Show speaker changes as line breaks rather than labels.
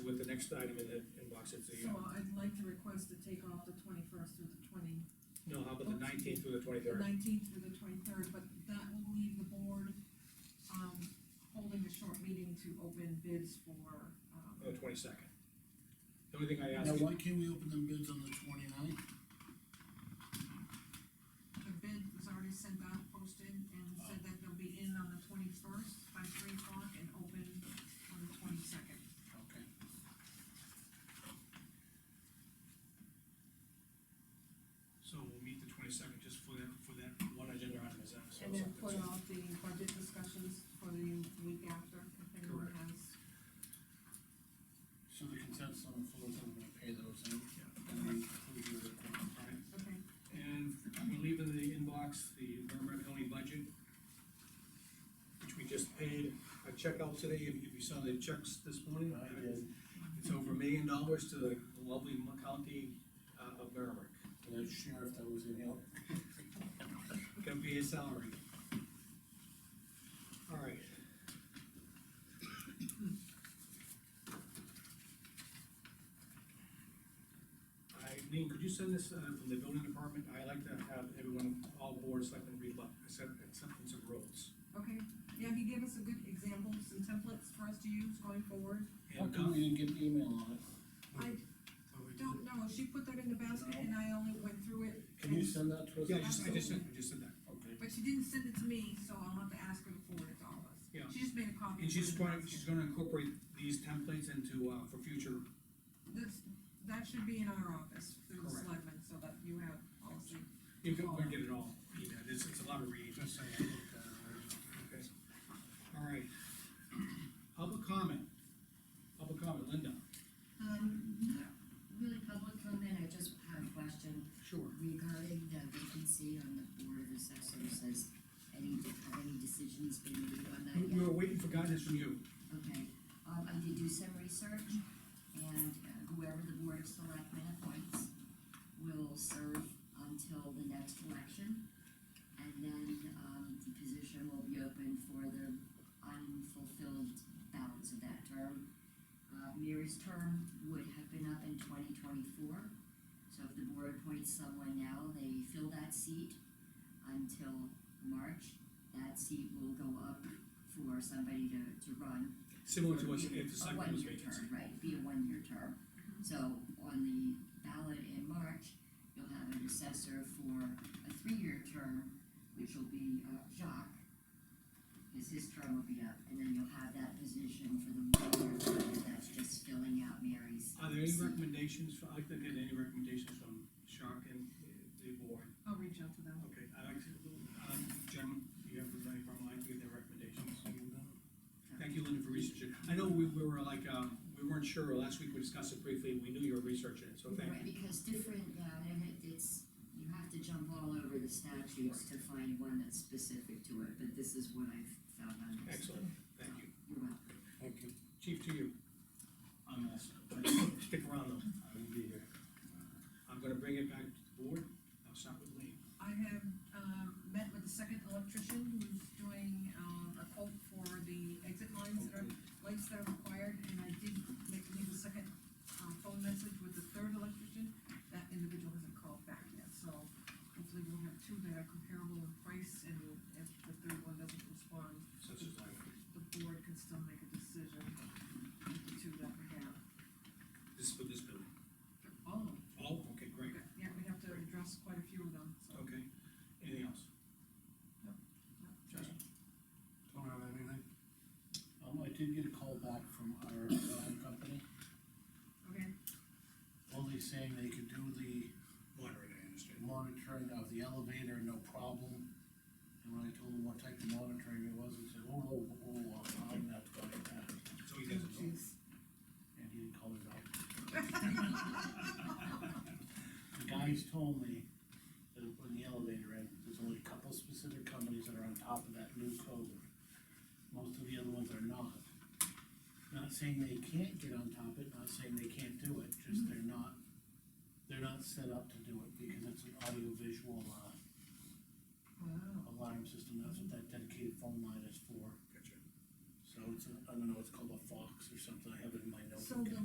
next item in the inbox, it's the,
So I'd like to request to take off the twenty-first through the twenty,
no, how about the nineteenth through the twenty-third?
nineteenth through the twenty-third, but that will leave the board, um, holding a short meeting to open bids for, um,
Or the twenty-second? The only thing I ask,
Now, why can't we open them bids on the twenty-ninth?
the bid was already sent out, posted, and said that they'll be in on the twenty-first by three o'clock and open on the twenty-second.
Okay.
so we'll meet the twenty-second just for that, for that one agenda item, is that? so
And then put
something-
off the budget discussions for the week after, if anyone
Correct.
has.
So the consensus on the floor is I'm gonna pay those out. And then include your requirement.
All right.
Okay,
And we leave in the inbox the Merrimack County budget, which we just paid a check out today, if if you saw the checks this morning.
I did,
It's over a million dollars to the lovely county uh, of Merrimack.
the sheriff that was in here.
Gonna be his salary. All right. I, Lean, could you send this, uh, from the building department, I like to have everyone, all boards, like, read, like, accept, acceptance of roles.
okay, yeah, if you give us a good examples and templates for us to use going forward.
How
And,
come
uh,
we didn't get an email on it?
I don't know, she put that in the basket and I only went through it.
Can you send that to us?
yeah, I just, I just said, I just said that,
Okay.
But she didn't send it to me, so I'll have to ask her to forward it to all of us.
Yeah.
She just made a copy.
and
and
she's
put it
gonna,
in the
she's
basket.
gonna incorporate these templates into, uh, for future,
This, that should be in our office, through the
Correct.
selectmen, so that you have policy.
you can, we get it all, yeah, it's, it's a lot of reading.
Just say, I looked at it already.
Okay, all right. Public comment. Public comment, Linda.
Um, not really public comment, I just have a question
Sure.
regarding the vacancy on the board of assessors, has any, have any decisions been made on that
We
yet?
were waiting for guidance from you.
Okay, um, I did do some research, and uh, whoever the board of selectmen appoints will serve until the next election, and then, um, the position will be open for the unfulfilled balance of that term. Uh, Mary's term would have been up in twenty twenty-four, so if the board appoints someone now, they fill that seat until March, that seat will go up for somebody to, to run
Similar to what's, if the selectmen was
a one-year
vacancy.
term, right, be a one-year term. So on the ballot in March, you'll have an assessor for a three-year term, which will be uh, Jacques, because his term will be up, and then you'll have that position for the one-year term, and that's just filling out Mary's.
Are there any recommendations, for- I'd like to get any recommendations from Shark and uh, the board.
I'll reach out to them.
Okay, I'd like to, um, gentlemen, you have any problem, I'd like to get their recommendations. Thank you, Linda, for researching. I know we we were like, um, we weren't sure, last week we discussed it briefly, we knew you were researching it, so thank
Right,
you.
because different, yeah, and it, it's, you have to jump all over the statutes to find one that's specific to it, but this is what I've found on this.
Excellent, thank you.
You're welcome.
Thank you.
Chief, to you.
I'm also,
Stick around though.
I will be here.
I'm gonna bring it back to the board, I'll start with Lee.
I have, um, met with the second electrician who's doing, um, a quote for the exit lines that are, lights that are required, and I did make, leave a second, um, phone message with the third electrician. That individual hasn't called back yet, so hopefully we'll have two that are comparable in price, and if the third one doesn't respond,
Such as like,
the board can still make a decision with the two that we have.
this is for this building.
All of them,
Oh, okay, great,
yeah, we have to address quite a few of them, so.
okay. Anything else?
No.
Justin?
Don't have anything.
Um, I did get a call back from our alarm company,
Okay,
only saying they could do the
Moderator, I understand.
monitoring of the elevator, no problem. And when I told them what type of monitoring it was, he said, oh, oh, oh, I'm not going to that.
So he doesn't know.
Jeez.
And he didn't call it out. The guys told me that when the elevator in, there's only a couple specific companies that are on top of that new code. Most of the other ones are not. Not saying they can't get on top of it, not saying they can't do it, just they're not, they're not set up to do it because it's an audio visual, uh,
Wow.
alarm system, that's what that dedicated phone line is for.
Gotcha.
So it's, a- I don't know, it's called a Fox or something, I have it in my notes.
So the